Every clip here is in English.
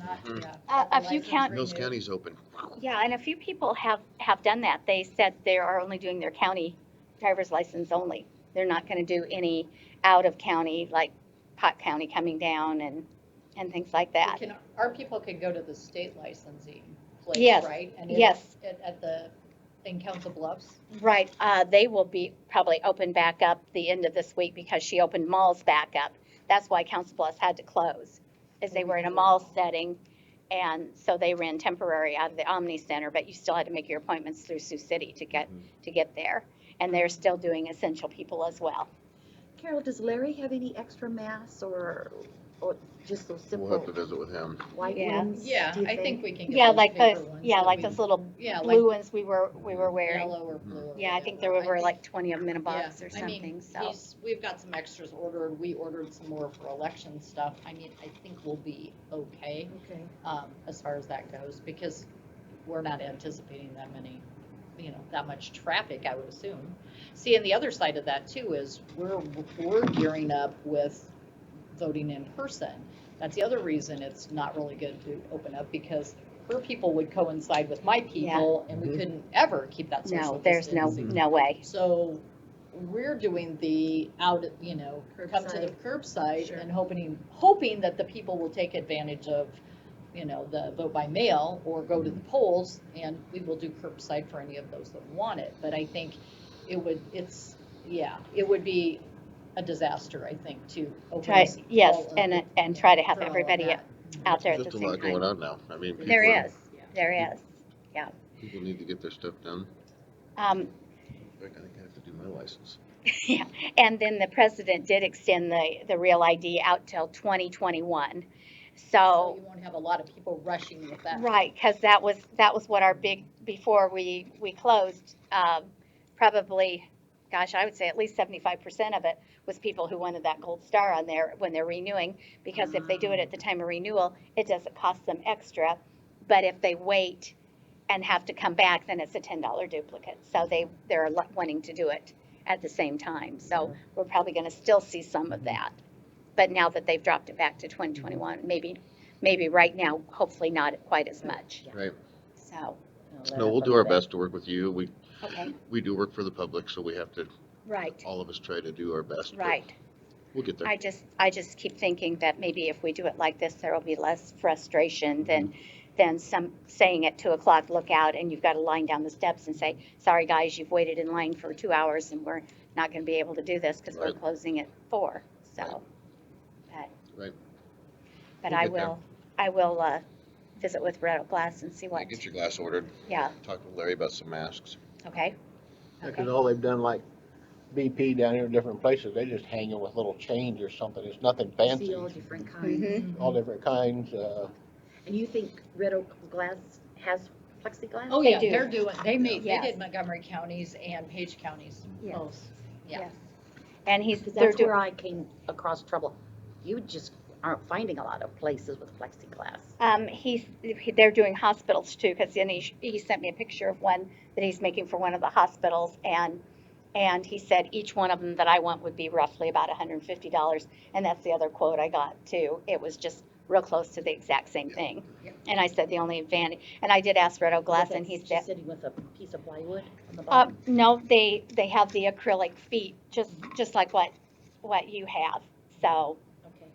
Mhm. yeah. Uh, if you count- Mills County's open. Yeah, and a few people have, have done that. They said they are only doing their county driver's license only. They're not gonna do any out of county, like Pot County coming down and, and things like We that. can- Our people can go to the state licensing place, Yes, right? And yes. it's At, at the, in Council Bluffs, Right, uh, they will be probably open back up the end of this week because she opened malls back up. That's why Council Bluffs had to close, is they were in a mall setting. And so they ran temporary out of the Omni Center, but you still had to make your appointments through Sioux City to get, to get there. And they're still doing essential people as well. Carol, does Larry have any extra masks or, or just those We'll simple have to visit with him. white Yeah. ones? yeah, do you I think we can get Yeah, those like those, paper ones. yeah, that like we- those little Yeah, like blue ones we were, we were wearing. yellow or blue. or Yeah, I think there whatever. were think- like twenty of them in a yeah, box or I mean, something, so. he's- We've got some extras ordered, we ordered some more for election stuff, I mean, I think we'll be okay, Okay. um, as far as that goes, because we're not anticipating that many, you know, that much traffic, I would assume. See, and the other side of that too is we're, we're gearing up with voting in person. That's the other reason it's not really good to open up because her people would coincide with my people and we Mhm. couldn't ever keep that social No, there's no, distancing. no way. So we're doing the out, you know, come to the curbside Sure. and hoping, hoping that the people will take advantage of, you know, the vote by mail or go to the Mm-hmm. polls and we will do curbside for any of those that want it. But I think it would, it's, yeah, it would be a disaster, I think, to open. Try, this all yes, up and, and try to have for all of everybody that. out there at Just the a same lot going time. on now. I mean. people There are- is, there is. People need to get their stuff done. Um, In fact, I think I have to do my license. yeah, and then the president did extend the, the real ID out till twenty twenty-one. So So you won't have a lot of people rushing with that. Right, because that was, that was what our big, before we, we closed, um, probably, gosh, I would say at least seventy-five percent of it was people who wanted that gold star on there when they're renewing, because if they do it at the time of renewal, it doesn't cost them extra. But if they wait and have to come back, then it's a ten dollar duplicate. So they, they're lo- wanting to do it at the same time. So we're probably gonna still see some of that. But now that they've dropped it back to twenty twenty-one, maybe, maybe right now, hopefully not quite as much. Right. So, Let No, we'll do our everybody- best to work with you. We, okay, we do work for the public, so we have to, right, all of us try to do our best. but right. We'll get there. I just, I just keep thinking that maybe if we do it like this, there will be less frustration Mm-hmm. than, than some saying at two o'clock, look out, and you've got to line down the steps and say, sorry, guys, you've waited in line for two hours and we're not going to be able to do this because we're Right. closing at four, so. but- Right. But We'll I get there. will, I will, uh, visit with Red Glass and see Yeah, what, Get your glass ordered. yeah, Talk with Larry about some masks. okay, Because all they've done like BP down here in different places, they just hang it with little chains or something. It's nothing See fancy, all different kinds. Mm-hmm. Mhm. all different kinds, uh, And you think red oak glass has plexiglass? Oh, They yeah, do. they're doing, they made, they Yes. did Montgomery counties and Page counties. Yes. both. Yeah. yes. And he's, Because they're that's doing, where I came across trouble. You just aren't finding a lot of places with plexiglass. Um, he's, he- they're doing hospitals too, because then he, he sent me a picture of one that he's making for one of the hospitals, and, and he said each one of them that I want would be roughly about hundred and fifty dollars, and that's the other quote I got too, it was just real close to the exact same thing. Yep. And I said the only advantage, and I did ask Red Oak Glass, and he he's said, Just sitting with a piece of plywood on the uh, bottom. no, they, they have the acrylic feet, just, just like what, what you have, so, Okay.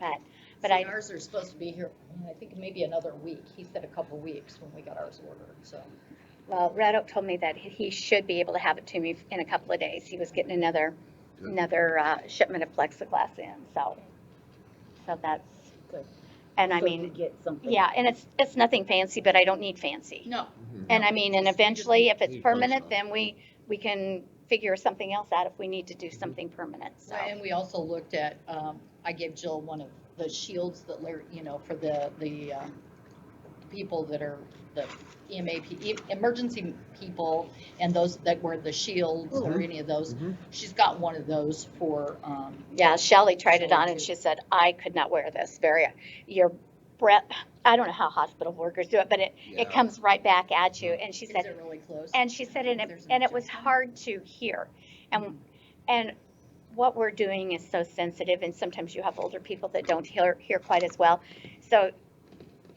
but, but See, I- Ours are supposed to be here, I think maybe another week. He said a couple weeks when we got ours ordered, so. Well, Red Oak told me that he- he should be able to have it to me in a couple of days. He was getting another, Good. another uh, shipment of plexiglass in, so. So that's, Good. and I So you mean, Get something. yeah, and it's, it's nothing fancy, but I don't need fancy. No. And I mean, and eventually, if it's Need permanent, functional. then we, we can figure something else out if we need to do Mm-hmm. something permanent, so. And we also looked at, um, I gave Jill one of the shields that Larry, you know, for the, the, um, people that are the EMA, pe- e- emergency people and those that wear the shields or any of those. Mhm. She's got one of those for, um, Yeah, Shelley tried it Shelley on and too. she said, I could not wear this, very, your breath, I don't know how hospital workers do it, but it, it Yeah. comes right back at you. And she is said, it really close? And she said, and it, There's an and it was objection. hard to hear. Mm-hmm. And, and what we're doing is so sensitive, and sometimes you have older people that don't hear, hear quite as well. So